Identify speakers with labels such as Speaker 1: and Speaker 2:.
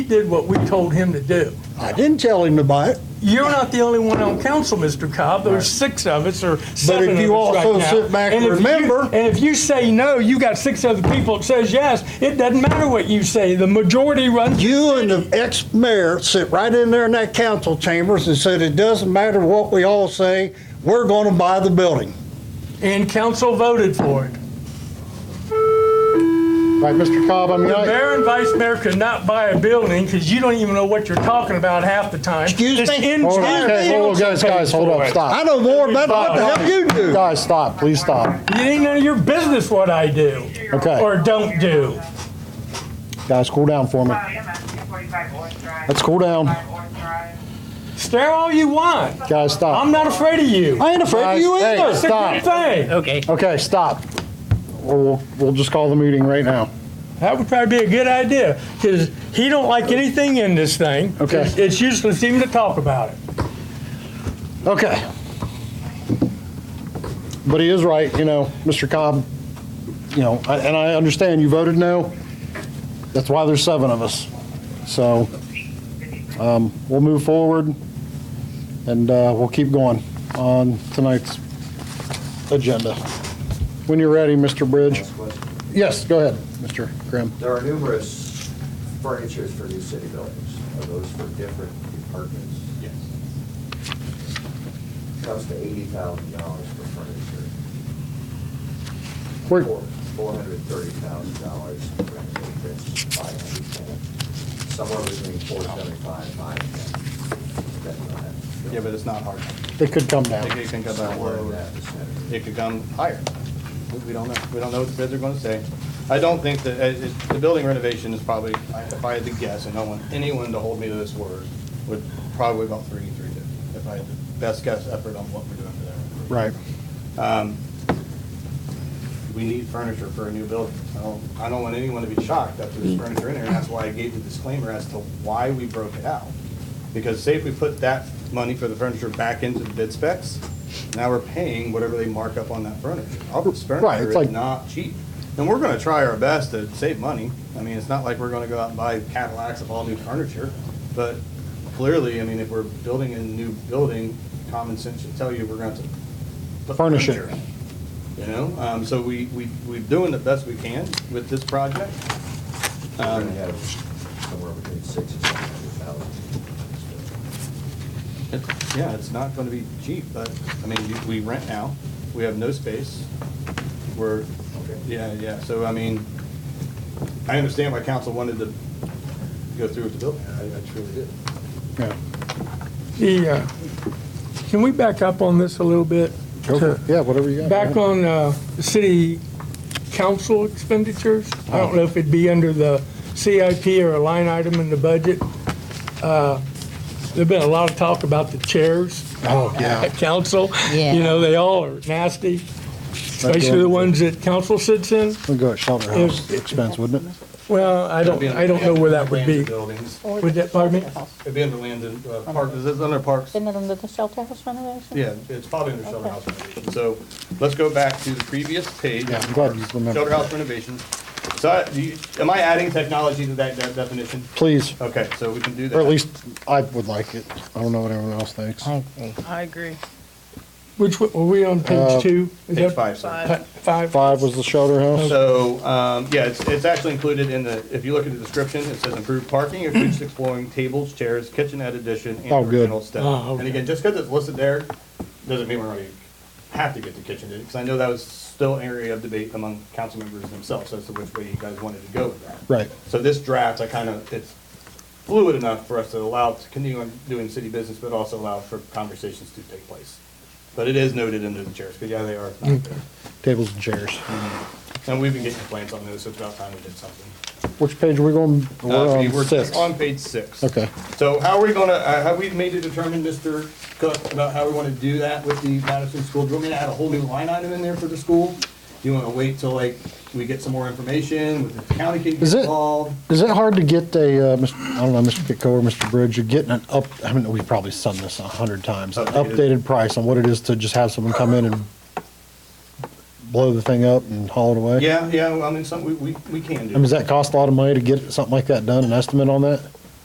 Speaker 1: He did what we told him to do.
Speaker 2: I didn't tell him to buy it,
Speaker 1: You're not the only one on council, Mr. Cobb. There's six of us or seven of us
Speaker 2: you
Speaker 1: right
Speaker 2: also
Speaker 1: now.
Speaker 2: sit back and
Speaker 1: if you-
Speaker 2: remember-
Speaker 1: And if you say no, you got six other people that says yes. It doesn't matter what you say. The majority runs.
Speaker 2: You and the ex-mayor sit right in there in that council chambers and said, it doesn't matter what we all say, we're gonna buy the building.
Speaker 1: And council voted for it.
Speaker 3: Right, Mr. Cobb, I mean,
Speaker 1: The
Speaker 3: I,
Speaker 1: mayor and vice mayor could not buy a building because you don't even know what you're talking about half the time.
Speaker 2: Excuse
Speaker 1: It's
Speaker 2: me?
Speaker 1: in
Speaker 2: Hold
Speaker 3: hold
Speaker 1: town.
Speaker 3: on, okay, hold on, guys, guys, hold up,
Speaker 2: I
Speaker 3: stop.
Speaker 2: know more about it what the hell you do.
Speaker 3: Guys, stop, please stop.
Speaker 1: It ain't none of your business what I do
Speaker 3: Okay,
Speaker 1: or don't do.
Speaker 3: guys, cool down for me.
Speaker 4: I am at 245 Orange Drive.
Speaker 3: Let's cool down.
Speaker 4: 245 Orange Drive.
Speaker 1: Stare all you want.
Speaker 3: Guys, stop.
Speaker 1: I'm not afraid of you.
Speaker 2: I ain't afraid of you
Speaker 3: Guys, hey,
Speaker 2: either.
Speaker 1: It's a good thing.
Speaker 5: Okay.
Speaker 3: Okay, stop. Or we'll, we'll just call the meeting right now.
Speaker 1: That would probably be a good idea because he don't like anything in this thing.
Speaker 3: Okay.
Speaker 1: It's- It's useless even to talk about it.
Speaker 3: Okay. But he is right, you know, Mr. Cobb, you know, I- and I understand you voted no. That's why there's seven of us. So um, we'll move forward and uh, we'll keep going on tonight's agenda. When you're ready, Mr. Bridge.
Speaker 6: Last question.
Speaker 3: Yes, go ahead, Mr. Grimm.
Speaker 6: There are numerous furnitures for new city buildings. Are those for different departments? Yes. Comes to eighty thousand dollars for furniture.
Speaker 3: Where-
Speaker 6: Four hundred thirty thousand dollars for renovations, five hundred ten. Somewhere between four seventy-five, five ten.
Speaker 7: Yeah, but it's not hard.
Speaker 3: They could come
Speaker 7: It
Speaker 3: down.
Speaker 7: could- it can come down
Speaker 6: Somewhere in
Speaker 7: lower.
Speaker 6: that vicinity.
Speaker 7: It could come higher. We- We don't know. We don't know what the bids are going to say. I don't think that, uh, it- the building renovation is probably, I- if I had to guess, and I don't want anyone to hold me to this word, would probably about three, three fifty, if I had the best guess effort on what we're doing for that.
Speaker 3: Right.
Speaker 7: Um, We need furniture for a new building. I don't, I don't want anyone to be shocked that
Speaker 3: Mm.
Speaker 7: there's furniture in there, and that's why I gave the disclaimer as to why we broke it out. Because say if we put that money for the furniture back into the bid specs, now we're paying whatever they mark up on that furniture. Albert's
Speaker 3: Right, it's
Speaker 7: furniture
Speaker 3: like-
Speaker 7: is not cheap. And we're gonna try our best to save money. I mean, it's not like we're gonna go out and buy Cadillacs of all new furniture, but clearly, I mean, if we're building a new building, common sense should tell you we're gonna have to put
Speaker 3: Furnish it.
Speaker 7: furniture in, You know, um, so we, we, we're doing the best we can with this project.
Speaker 6: We're
Speaker 7: Um,
Speaker 6: gonna have somewhere between six and seven hundred thousand.
Speaker 7: It's- Yeah, it's not gonna be cheap, but, I mean, you- we rent now, we have no space, we're, yeah, yeah, so, I mean, I understand why council wanted to go through with the building, I I truly did.
Speaker 3: Yeah.
Speaker 1: The, uh, can we back up on this a little bit?
Speaker 3: Go for it. Yeah, whatever you got.
Speaker 1: Back
Speaker 3: man.
Speaker 1: on uh, the city council expenditures, I don't know if it'd be under the CIP or a line item in the budget. Uh, There's been a lot of talk about the chairs
Speaker 3: Oh, yeah.
Speaker 1: at council.
Speaker 5: Yeah.
Speaker 1: You know, they all are nasty, especially the ones that council sits in.
Speaker 3: We'll go at shelter house expense, wouldn't it?
Speaker 1: Well, I don't, I don't know where that would be.
Speaker 7: Land Buildings,
Speaker 1: Would that, pardon me?
Speaker 7: it'd be under land and, uh, park, is it under parks?
Speaker 5: Isn't it under the shelter house renovation?
Speaker 7: Yeah, it's probably under shelter house renovation. So let's go back to the previous page.
Speaker 3: Yeah, I'm glad you remembered.
Speaker 7: Shelter house renovation. So I- do you- am I adding technology to that that definition?
Speaker 3: Please,
Speaker 7: Okay, so we can do that.
Speaker 3: or at least I would like it. I don't know what everyone else thinks.
Speaker 5: I agree.
Speaker 8: I agree.
Speaker 1: Which, one- were we on page two? Is
Speaker 7: Page
Speaker 1: that-
Speaker 7: five. sorry.
Speaker 8: Five.
Speaker 1: Five?
Speaker 3: Five was the shelter house.
Speaker 7: So, um, yeah, it's, it's actually included in the, if you look at the description, it says improved parking, includes exploring tables, chairs, kitchenette addition, and
Speaker 3: Oh, good.
Speaker 7: original step.
Speaker 1: Oh,
Speaker 7: And
Speaker 1: okay.
Speaker 7: again, just because it's listed there, doesn't mean we're going to have to get the kitchenette, because I know that was still an area of debate among council members themselves, as to which way you guys wanted to go with that.
Speaker 3: Right.
Speaker 7: So this draft, I kind of, it's fluid enough for us to allow, to continue on doing city business, but also allow for conversations to take place. But it is noted under the chairs, because yeah, they are not there.
Speaker 3: Tables and chairs.
Speaker 7: And we've been getting complaints on those, so it's about time we did something.
Speaker 3: Which page are we going?
Speaker 7: Uh,
Speaker 3: We're
Speaker 7: we
Speaker 3: on
Speaker 7: were
Speaker 3: six.
Speaker 7: On page six.
Speaker 3: Okay.
Speaker 7: So how are we gonna, uh, have we made a determination, Mr. Cook, about how we wanna do that with the Madison School? Do you want me to add a whole new line item in there for the school? Do you wanna wait till like, we get some more information with the county getting
Speaker 3: Is it-
Speaker 7: involved?
Speaker 3: Is it hard to get a, uh, Mr. I don't know, Mr. Pitco or Mr. Bridge, you're getting an up, I mean, we've probably sung this a hundred times, an
Speaker 7: Updated.
Speaker 3: updated price on what it is to just have someone come in and blow the thing up and haul it away?
Speaker 7: Yeah, yeah, well, I mean, some, we, we, we can
Speaker 3: I mean,
Speaker 7: do.
Speaker 3: does that cost a lot of money to get something like that done, an estimate on that?